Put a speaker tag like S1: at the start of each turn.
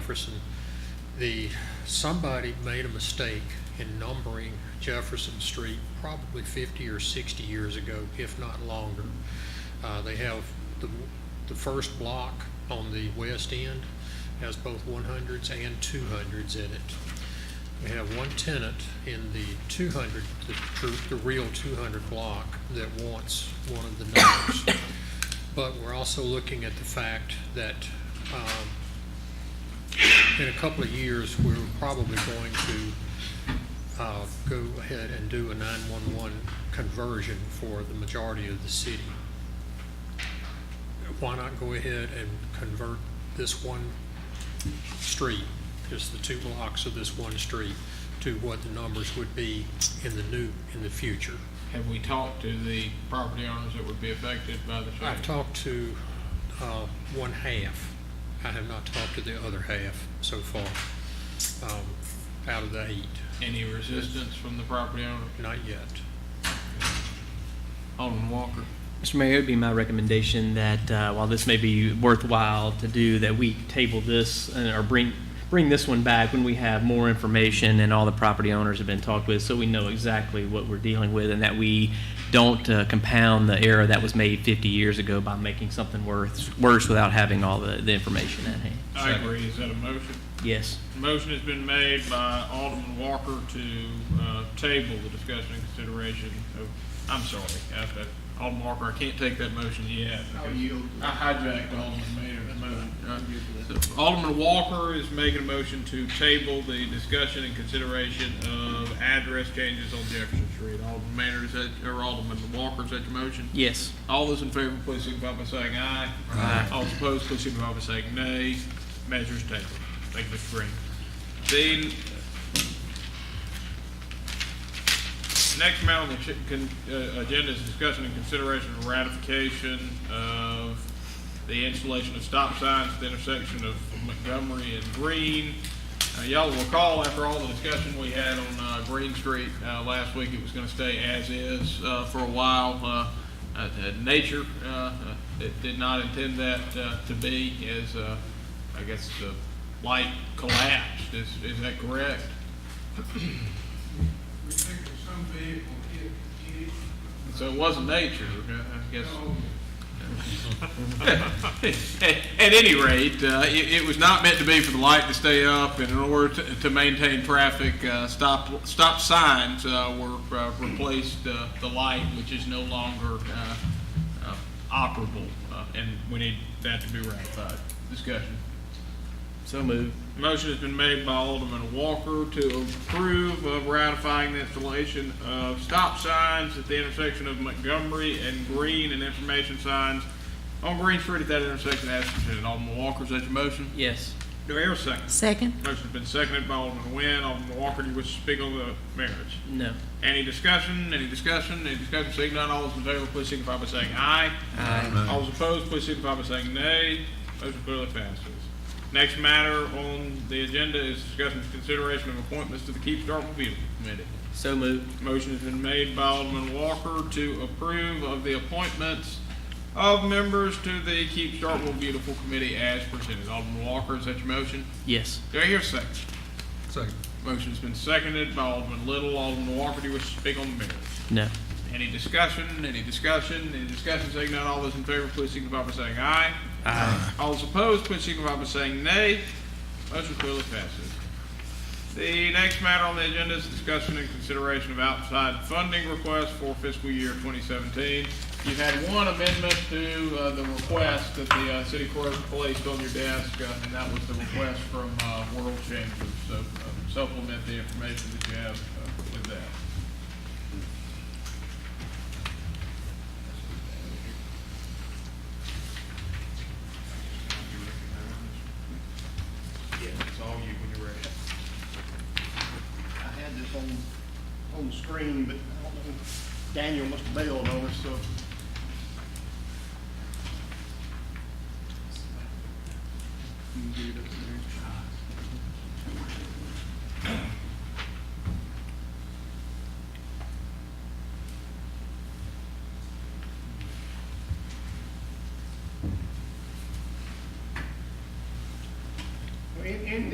S1: Jefferson, the, somebody made a mistake in numbering Jefferson Street probably fifty or sixty years ago, if not longer. Uh, they have the, the first block on the west end has both one hundreds and two hundreds in it. We have one tenant in the two hundred, the true, the real two hundred block that wants one of the numbers. But we're also looking at the fact that, um, in a couple of years, we're probably going to uh, go ahead and do a 911 conversion for the majority of the city. Why not go ahead and convert this one street, just the two blocks of this one street, to what the numbers would be in the new, in the future?
S2: Have we talked to the property owners that would be affected by the
S1: I've
S2: same?
S1: talked to uh, one half. I have not talked to the other half so far, um, out of the eight,
S2: Any resistance from the property owner?
S1: not yet.
S2: Alderman Walker?
S3: Mr. Mayor, it would be my recommendation that uh, while this may be worthwhile to do, that we table this uh, or bring, bring this one back when we have more information and all the property owners have been talked with, so we know exactly what we're dealing with and that we don't uh, compound the error that was made 50 years ago by making something worse, worse without having all the, the information at hand.
S2: I agree. Is that a motion?
S3: Yes.
S2: Motion has been made by Alderman Walker to uh, table the discussion and consideration of, I'm sorry, I- I- Alderman Walker, I can't take that motion yet. because I hijacked Alderman Maynard's motion. Uh, so Alderman Walker is making a motion to table the discussion and consideration of address changes on Jefferson Street. Alderman Maynard, is that, or Alderman Walker, is that your motion?
S3: Yes.
S2: All those in favor, please signify by saying aye.
S3: Aye.
S2: All opposed, please signify by saying nay. Measures taken. Thank you, Mr. Green. The next matter on the chi- con- uh, agenda is discussion and consideration of ratification of the installation of stop signs at the intersection of Montgomery and Green. Uh, Y'all will recall, after all the discussion we had on uh, Green Street uh, last week, it was going to stay as is uh, for a while. Uh, uh, uh, Nature uh, uh, it did not intend that uh, to be as, uh, I guess, the light collapsed. Is is that correct?
S4: We think that some vehicle hit, hit it,
S2: So it wasn't nature, uh, I guess.
S4: so
S2: At any rate, uh, it, it was not meant to be for the light to stay up, and in order to, to maintain traffic, uh, stop, stop signs uh, were uh, replaced, uh, the light, which is no longer uh, uh, operable, uh, and we need that to be ratified. Discussion.
S3: So moved.
S2: Motion has been made by Alderman Walker to approve of ratifying the installation of stop signs at the intersection of Montgomery and Green and information signs on Green Street at that intersection as presented. Alderman Walker, is that your motion?
S3: Yes.
S2: Do I hear a second?
S5: Second?
S2: Motion's been seconded by Alderman Nguyen. Alderman Walker, do you wish to speak on the merits?
S3: No.
S2: Any discussion, any discussion, any discussion, seeing none, all those in favor, please signify by saying aye. Aye. All those opposed, please signify by saying nay. Motion clearly passes. Next matter on the agenda is discussion and consideration of appointments to the Keep Start Review Committee.
S3: So moved.
S2: Motion has been made by Alderman Walker to approve of the appointments of members to the Keep Starkville Beautiful Committee as presented. Alderman Walker, is that your motion?
S3: Yes.
S2: Do I hear a second?
S1: Second.
S2: Motion's been seconded by Alderman Little. Alderman Walker, do you wish to speak on the merits?
S3: No.
S2: Any discussion, any discussion, any discussion, saying none, all those in favor, please signify by saying aye. Aye. All those opposed, please signify by saying nay. Motion clearly passes. The next matter on the agenda is discussion and consideration of outside funding requests for fiscal year 2017. You've had one amendment to uh, the request that the uh, city clerk placed on your desk, uh, and that was the request from uh, World Changers. So uh, supplement the information that you have uh, with that. Yeah, it's all you when you're ready.
S6: I had this on, on the screen, but I don't know, Daniel must have bailed on us, so. You can get it up there.